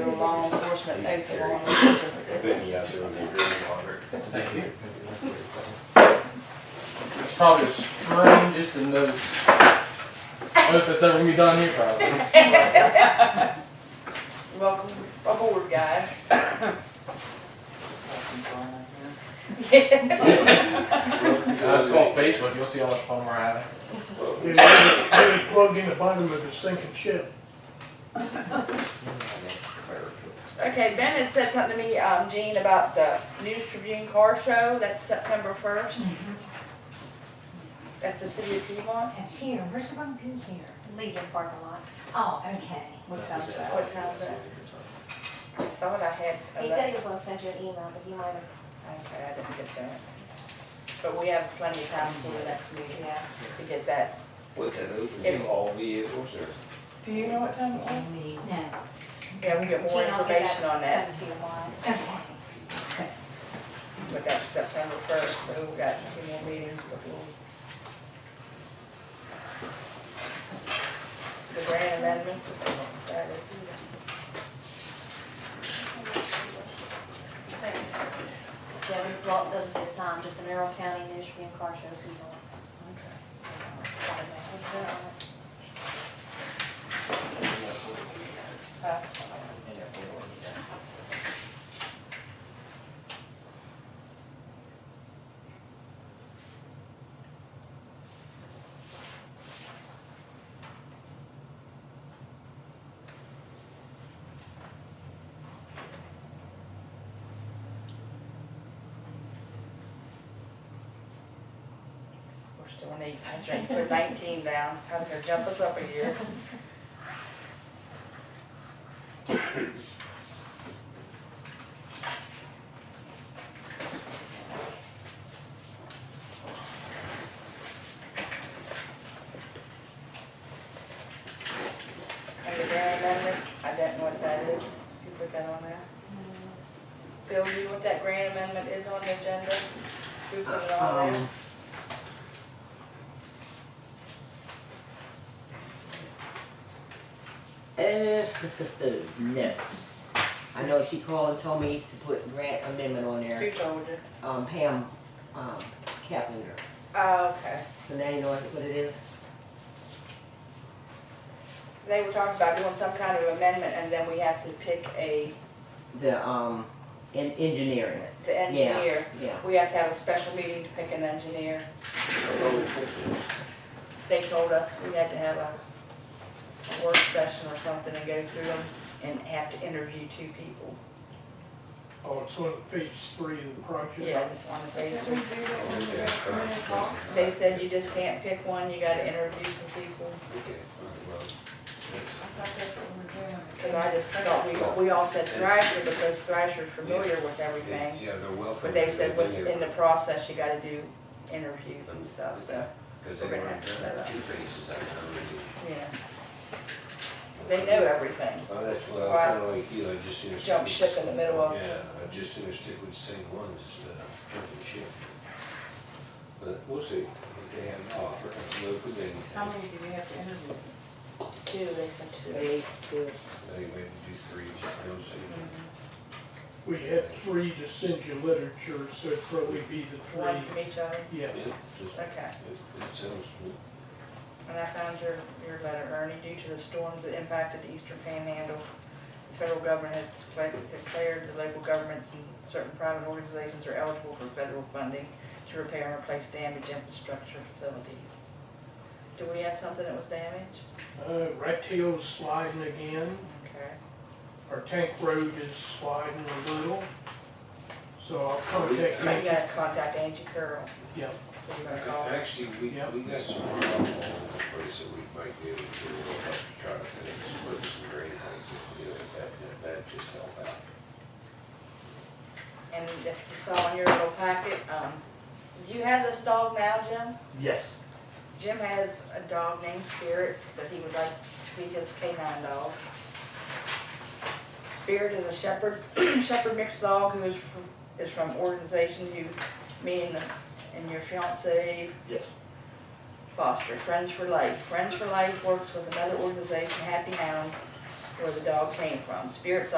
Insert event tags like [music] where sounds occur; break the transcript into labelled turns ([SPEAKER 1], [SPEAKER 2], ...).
[SPEAKER 1] law enforcement, oath of law enforcement.
[SPEAKER 2] Then you have to review your water.
[SPEAKER 3] Thank you. It's probably the strangest and most oath that's ever gonna be done here, probably.
[SPEAKER 1] Welcome aboard, guys.
[SPEAKER 3] Uh, just go on Facebook, you'll see how much fun we're having.
[SPEAKER 4] You're you're plugged in the bottom of the sinking ship.
[SPEAKER 1] Okay, Ben had said something to me, um, Jean, about the News Tribune Car Show, that's September first. That's the city of Piedmont,
[SPEAKER 5] It's here, we're supposed to be here, leave the parking lot. Oh, okay.
[SPEAKER 6] What time's that?
[SPEAKER 1] what time's that? I thought I had.
[SPEAKER 7] He said he was gonna send you an email, but you might have,
[SPEAKER 1] Okay, I didn't get that. But we have plenty of time for the next meeting
[SPEAKER 7] yeah.
[SPEAKER 1] to get that.
[SPEAKER 2] What's that, overview, all vehicles or?
[SPEAKER 1] Do you know what time it was?
[SPEAKER 5] No,
[SPEAKER 1] Yeah, we get more
[SPEAKER 7] Gina will get
[SPEAKER 1] information on that,
[SPEAKER 7] Send it to you tomorrow.
[SPEAKER 5] okay.
[SPEAKER 1] but that's September first, so we've got two more meetings before. The grant amendment. that is-
[SPEAKER 7] Yeah, we, well, it doesn't say the time, just the Mineral County News Review and Car Show people. What's that on it?
[SPEAKER 1] Uh, We're still on eight, I was trying to put nineteen down, I was gonna jump us up a year. And the grant amendment, I don't know what that is, you put that on there? Bill, you know what that grant amendment is on the agenda? Who put it on there?
[SPEAKER 4] Um,
[SPEAKER 6] Uh, [laughs] no. I know she called and told me to put grant amendment on
[SPEAKER 1] Who
[SPEAKER 6] there,
[SPEAKER 1] told you?
[SPEAKER 6] um, Pam, um, Kaplinger.
[SPEAKER 1] Oh, okay.
[SPEAKER 6] So now you know what it is?
[SPEAKER 1] They were talking about doing some kind of amendment, and then we have to pick a,
[SPEAKER 6] The, um, en- engineering,
[SPEAKER 1] the engineer.
[SPEAKER 6] yeah.
[SPEAKER 1] We have to have a special meeting to pick an engineer.
[SPEAKER 2] Oh,
[SPEAKER 1] They told us we had to have a a work session or something and go through them and have to interview two people.
[SPEAKER 4] Oh, it's on phase three of the project.
[SPEAKER 1] Yeah, on the phase three. They said you just can't pick one, you gotta interview some people. Cause I just thought, we, we all said Thrasher because Thrasher's familiar with everything.
[SPEAKER 2] Yeah, they're welcome.
[SPEAKER 1] But they said
[SPEAKER 2] They've been here
[SPEAKER 1] within the process, you gotta do interviews and stuff, so,
[SPEAKER 2] Cause they
[SPEAKER 1] we're gonna
[SPEAKER 2] weren't
[SPEAKER 1] have to set
[SPEAKER 2] done
[SPEAKER 1] up.
[SPEAKER 2] two faces, I know.
[SPEAKER 1] yeah. They know everything.
[SPEAKER 2] Well, Oh, that's what I'm kinda like you, I just seen a.
[SPEAKER 1] Jump ship in the middle of-
[SPEAKER 2] Yeah, I just seen a stick with the same ones instead of jumping ship. But we'll see, if they have an offer, we'll put it in.
[SPEAKER 1] How many do we have to interview? Two, they said two.
[SPEAKER 6] Phase two.
[SPEAKER 2] They may do three, we'll see.
[SPEAKER 1] Mm-hmm.
[SPEAKER 4] We had three to send you literature, so it'd probably be the
[SPEAKER 1] One
[SPEAKER 4] three.
[SPEAKER 1] from each other,
[SPEAKER 4] Yeah,
[SPEAKER 2] Yeah, just, it,
[SPEAKER 1] okay.
[SPEAKER 2] it sounds good.
[SPEAKER 1] And I found your, your letter, Ernie, due to the storms that impacted the eastern panhandle, the federal government has displa- declared the local governments and certain private organizations are eligible for federal funding to repair and replace damaged infrastructure facilities. Do we have something that was damaged?
[SPEAKER 4] uh, rat tail's sliding again.
[SPEAKER 1] Okay.
[SPEAKER 4] Our tank road is sliding a little. So I'll contact
[SPEAKER 1] I
[SPEAKER 4] Angie.
[SPEAKER 1] gotta contact Angie Curl.
[SPEAKER 4] Yeah,
[SPEAKER 1] Give her a call.
[SPEAKER 2] Actually, we,
[SPEAKER 4] Yep.
[SPEAKER 2] we got some rock all over the place that we might be able to do, we'll have to try to finish, put some green things, if we do it, that, that, that just help out.
[SPEAKER 1] And if you saw in your little packet, um, do you have this dog now, Jim?
[SPEAKER 8] Yes.
[SPEAKER 1] Jim has a dog named Spirit that he would like to be his canine dog. Spirit is a shepherd, [clears throat] shepherd mixed dog who is, fr- is from organization you, me and, the- and your fiance
[SPEAKER 8] Yes.
[SPEAKER 1] Foster, Friends for Life. Friends for Life works with another organization, Happy Hounds, where the dog came from. Spirit's